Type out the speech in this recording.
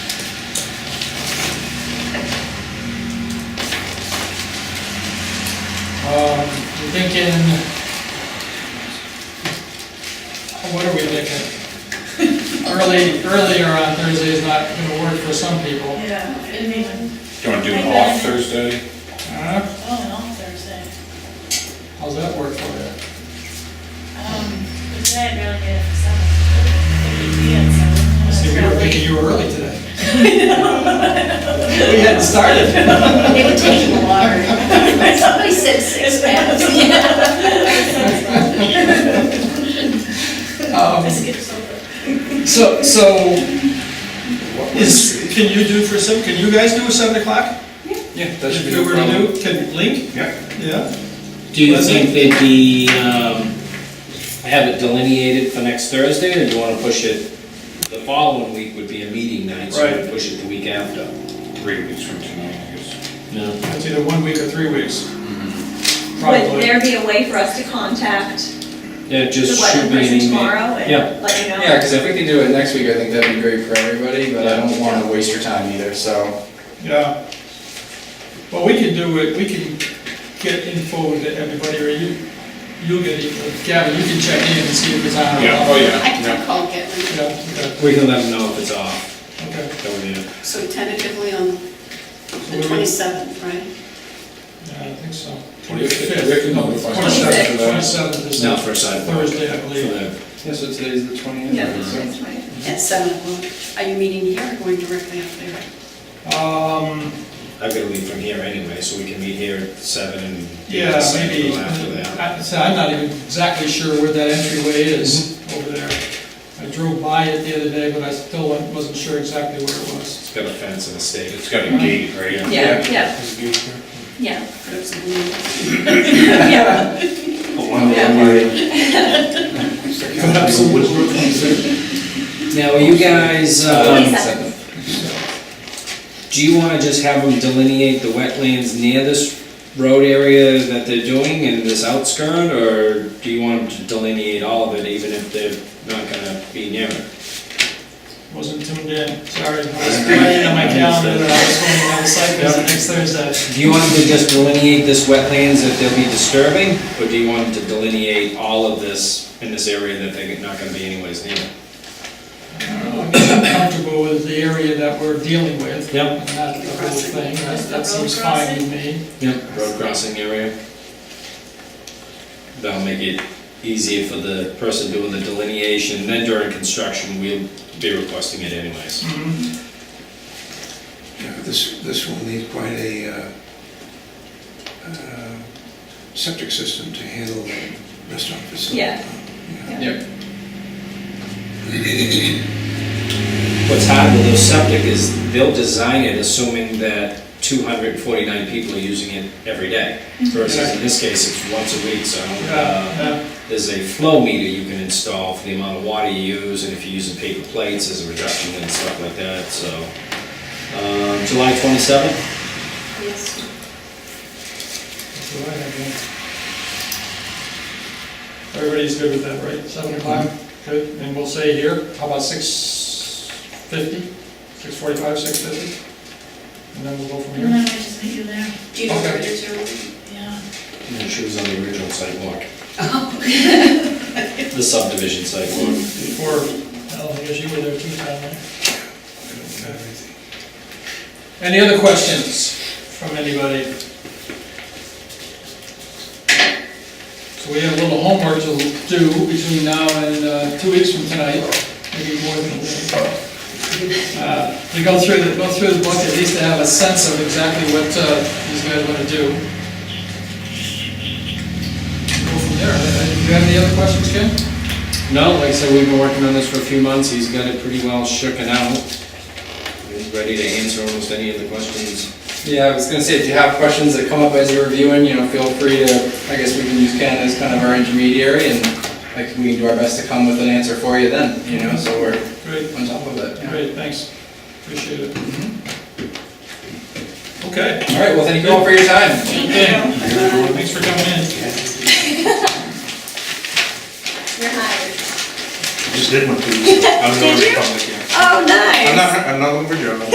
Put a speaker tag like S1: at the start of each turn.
S1: Um, thinking, what are we thinking? Early, earlier on Thursday is not gonna work for some people.
S2: Yeah, I mean,
S3: Do you want to do it off Thursday?
S1: Huh?
S2: oh, and on Thursday.
S1: How's that work for you?
S2: Um, but today I'd rather get it for seven. It would be at seven.
S1: See, we were thinking you were early today. We hadn't started.
S4: They were taking a water. Somebody said six packs.
S2: I
S1: Um,
S2: skipped over.
S1: So, so, is, can you do for seven, can you guys do a seven o'clock?
S3: Yeah, that
S1: If
S3: should be
S1: you
S3: no
S1: were
S3: problem.
S1: to do, can Link?
S3: Yeah.
S1: Yeah.
S5: Do you think they'd be, um, have it delineated for next Thursday, or do you wanna push it? The following week would be a meeting night, so
S1: Right.
S5: we push it the week after.
S3: Three weeks from tonight, I guess.
S5: No.
S1: It's either one week or three weeks.
S6: Would
S1: Probably.
S6: there be a way for us to contact
S5: Yeah,
S6: the
S5: just shoot me
S6: wetland
S5: an
S6: person
S5: email.
S6: tomorrow
S5: Yeah.
S6: and let you know?
S7: Yeah, because if we could do it next week, I think that'd be great for everybody, but I don't want to waste your time either, so.
S1: Yeah. Well, we can do it, we can get info to everybody, or you, you'll get, it. Gavin, you can check in and see if it's on. or
S3: Yeah,
S1: off.
S3: oh,
S8: I
S3: yeah,
S8: can
S3: yeah.
S8: call Gitlin,
S1: Yeah, okay,
S5: We can let them know if it's off,
S1: okay.
S5: that we do.
S8: so tentatively on
S1: So
S8: the
S1: we-
S8: twenty-seventh, right?
S1: Yeah, I think so.
S3: We have
S1: Twenty-fifth.
S3: to
S1: No,
S3: notify
S1: twenty-seventh,
S3: them.
S1: twenty-seventh is
S5: Not for a sidewalk.
S1: Thursday, I
S5: For
S1: believe.
S5: the-
S7: Yeah, so today's the
S6: Yeah,
S7: twentieth.
S6: that's right.
S1: Mm-hmm.
S8: At seven o'clock. Are you meeting here or going directly up there?
S1: Um,
S5: I've gotta leave from here anyway, so we can meet here at seven and.
S1: yeah,
S5: decide to
S1: maybe,
S5: go After that.
S1: I, so I'm not even exactly sure where that entryway is
S5: Mm-hmm.
S1: over there. I drove by it the other day, but I still wasn't sure exactly where it was.
S5: It's got a fence and a stake.
S3: It's got a gate, right?
S6: Yeah, yeah, yeah.
S8: Perhaps it will be-
S6: Yeah.
S5: Now, are you guys, um,
S6: Twenty-seventh.
S5: Do you wanna just have them delineate the wetlands near this road area that they're doing and this outskirt, or do you want them to delineate all of it, even if they're not gonna be near it?
S1: Wasn't tuned in, sorry. I was writing on my calendar that I was going on the site visit next Thursday.
S5: Do you want them to just delineate this wetlands that they'll be disturbing, or do you want them to delineate all of this in this area that they're not gonna be anyways near?
S1: I don't know, I'm just comfortable with the area that we're dealing with.
S5: Yep.
S1: And not the whole thing, that, that
S2: Road
S1: seems fine to
S2: crossing?
S1: me.
S5: Yep. Road crossing area? That'll make it easier for the person doing the delineation, then during construction, we'll be requesting it anyways.
S9: Yeah, This, this will need quite a uh, uh, septic system to handle the restaurant facility.
S6: Yeah.
S9: Yeah.
S7: Yep.
S5: What's hard with those septic is they'll design it assuming that two hundred and forty-nine people are using it every day. Versus in this case, it's once a week, so, uh,
S1: Yeah,
S5: there's a flow meter you can install for the amount of water you use, and if you're using paper plates, there's a reduction and stuff like that, so. Um, July twenty-seventh,
S8: Yes.
S1: that's what I have, yeah. Everybody's good with that, right? Seven o'clock, good, and we'll say here, how about six fifty? Six forty-five, six fifty? And then we'll go from
S2: And
S1: here.
S2: then we just meet you there,
S8: Do you know where
S1: Okay.
S8: it is or?
S2: yeah.
S5: she was on the original sidewalk. The subdivision sidewalk.
S1: Before, oh, I guess you were there too, Tom, right? Any other questions from anybody? So we have a little homework to do between now and uh, two weeks from tonight, maybe more than that. Uh, To go through, the- go through the book, at least to have a sense of exactly what uh, these guys want to do. Go from there. Uh, Do you have any other questions, Ken?
S5: No, like I said, we've been working on this for a few months, he's got it pretty well shooken out. He's ready to answer almost any of the questions.
S7: Yeah, I was gonna say, if you have questions that come up as you're reviewing, you know, feel free to, I guess we can use Ken as kind of our intermediary and like we can do our best to come with an answer for you then, you know, so we're
S1: Great.
S7: on top of it. yeah.
S1: Great, thanks, appreciate it. Okay,
S7: All right, well, thank you all for your time.
S1: okay, thanks for coming in.
S6: You're hired.
S3: Just did one, please.
S6: Did you? Oh, nice.
S9: I'm not, I'm not over Joe.